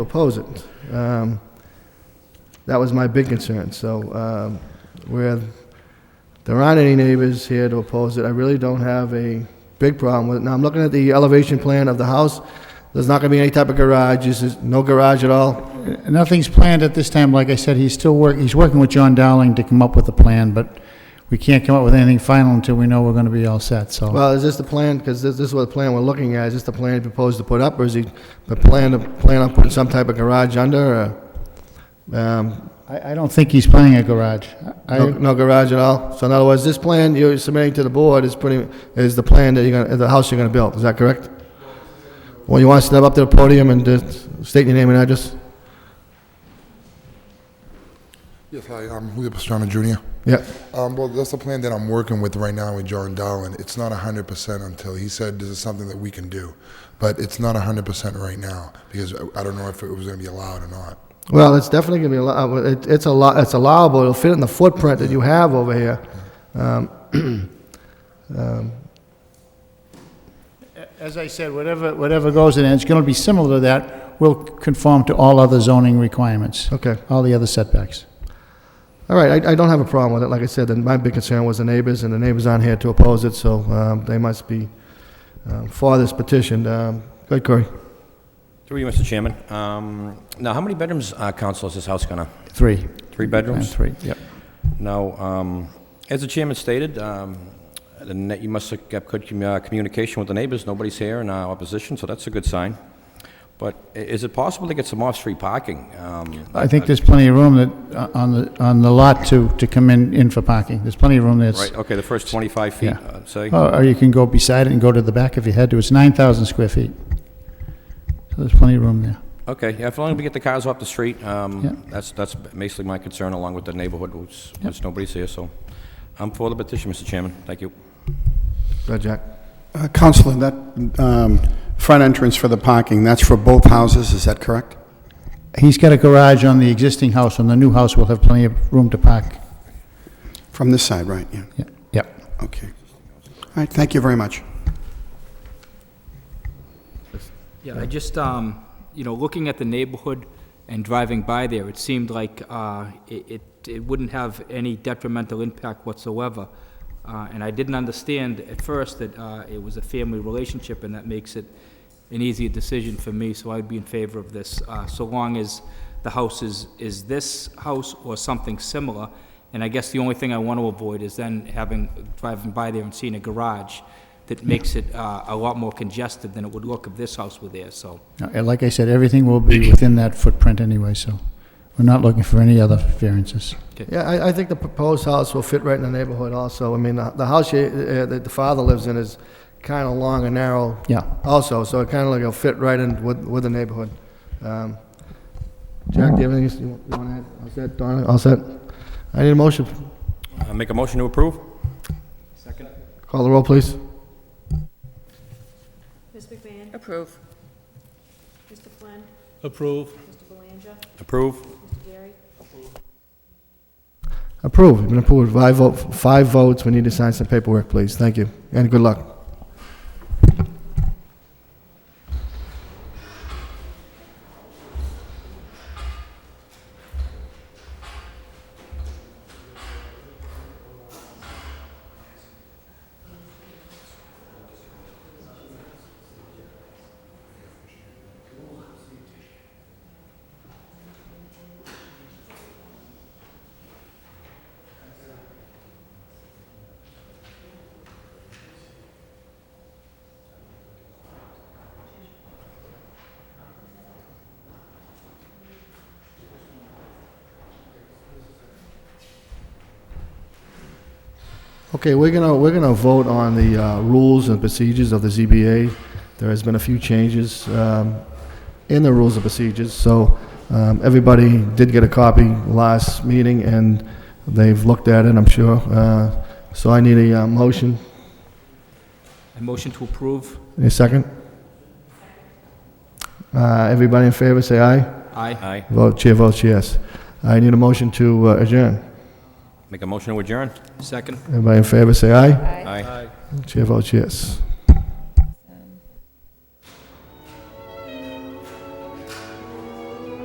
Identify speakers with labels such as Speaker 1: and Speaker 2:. Speaker 1: oppose it. Um, That was my big concern, so um, where there aren't any neighbors here to oppose it, I really don't have a big problem with it. Now, I'm looking at the elevation plan of the house, there's not going to be any type of garage, There's just no garage at all.
Speaker 2: Nothing's planned at this time. Like I said, he's still work, he's working with John Dowling to come up with a plan, but we can't come up with anything final until we know we're going to be all set, so.
Speaker 1: Well, is this the plan, because this this is what the plan we're looking at, is this the plan he proposed to put up, or is he the plan to, plan on putting some type of garage under, or um,
Speaker 2: I, I don't think he's planning a garage. I,
Speaker 1: No, no garage at all? So in other words, this plan you're submitting to the board is pretty, is the plan that you're gonna, the house you're gonna build, is that correct? Well, you want to step up to the podium and just state your name and address?
Speaker 3: Yes, hi, I'm Julio Pastrana Jr.
Speaker 1: Yeah,
Speaker 3: Um, well, that's the plan that I'm working with right now with John Dowling. It's not 100% until he said this is something that we can do. But it's not 100% right now because I I don't know if it was going to be allowed or not.
Speaker 1: well, it's definitely gonna be, allow- it- it's a lot, it's allowable, it'll fit in the footprint that you have over here. Um,
Speaker 2: As I said, whatever, whatever goes in, and it's going to be similar to that, will conform to all other zoning requirements,
Speaker 1: Okay,
Speaker 2: all the other setbacks.
Speaker 1: all right, I, I don't have a problem with it, like I said, and my big concern was the neighbors, and the neighbors aren't here to oppose it, so, um, they must be, um, for this petition. Um, go ahead, Corey.
Speaker 4: Through you, Mr. Chairman. Um, Now, how many bedrooms, uh, Council, is this house gonna?
Speaker 2: Three.
Speaker 4: Three
Speaker 2: And
Speaker 4: bedrooms?
Speaker 2: three, yep.
Speaker 4: Now, um, as the chairman stated, um, the ne- you must have kept good commu- uh, communication with the neighbors. Nobody's here in uh, opposition, so that's a good sign. But i- is it possible to get some off-street parking? Um,
Speaker 2: I think there's plenty of room that, uh, on the, on the lot to, to come in, in for parking. There's plenty of room there.
Speaker 4: Right, okay, the first 25 feet,
Speaker 2: Yeah.
Speaker 4: uh, say?
Speaker 2: Oh, Or or you can go beside it and go to the back if you had to. It's 9,000 square feet. So there's plenty of room there.
Speaker 4: Okay, yeah, as long as we get the cars off the street,
Speaker 2: Yeah.
Speaker 4: um, that's that's basically my concern, along with the neighborhood, which which nobody's here, so I'm for the petition, Mr. Chairman. Thank you.
Speaker 1: Go ahead, Jack.
Speaker 5: Uh, Counselor, that um, front entrance for the parking, that's for both houses, is that correct?
Speaker 2: He's got a garage on the existing house, and the new house will have plenty of room to park.
Speaker 5: From this side, right, yeah,
Speaker 2: Yeah, Yep.
Speaker 5: okay. All right, thank you very much.
Speaker 6: Yeah, I just, um, you know, looking at the neighborhood and driving by there, it seemed like, uh, it, it, it wouldn't have any detrimental impact whatsoever. Uh, and I didn't understand at first that, uh, it was a family relationship and that makes it an easier decision for me, so I'd be in favor of this, uh, so long as the house is, is this house or something similar. And I guess the only thing I want to avoid is then having, driving by there and seeing a garage that makes it uh, a lot more congested than it would look if this house were there, so.
Speaker 2: Uh, And like I said, everything will be within that footprint anyway, so we're not looking for any other variances.
Speaker 1: Yeah, I, I think the proposed house will fit right in the neighborhood also. I mean, the, the house you, uh, that the father lives in is kind of long and narrow
Speaker 2: Yeah.
Speaker 1: also, so it kind of like will fit right in with, with the neighborhood. Um, Jack, do you have anything you want to add? All set, Donna, all set? I need a motion.
Speaker 4: Uh, Make a motion to approve?
Speaker 1: Call the roll, please.
Speaker 7: Ms. McMahon?
Speaker 8: Approve.
Speaker 7: Mr. Flynn?
Speaker 9: Approve.
Speaker 7: Mr. Belangia?
Speaker 4: Approve?
Speaker 7: Mr. Gary?
Speaker 1: Approve, you've been approved. Five vote, five votes, we need to sign some paperwork, please. Thank you, and good luck. Okay, we're gonna, we're gonna vote on the uh, rules and procedures of the ZBA. There has been a few changes um, in the rules and procedures, so um, everybody did get a copy last meeting, and they've looked at it, I'm sure. Uh, So I need a uh, motion,
Speaker 6: I motion to approve.
Speaker 1: a second. Uh, Everybody in favor, say aye.
Speaker 6: Aye.
Speaker 4: Aye.
Speaker 1: Vote, chair votes yes. I need a motion to uh, adjourn.
Speaker 4: Make a motion to adjourn?
Speaker 6: Second.
Speaker 1: Everybody in favor, say aye.
Speaker 4: Aye.
Speaker 1: Chair votes yes.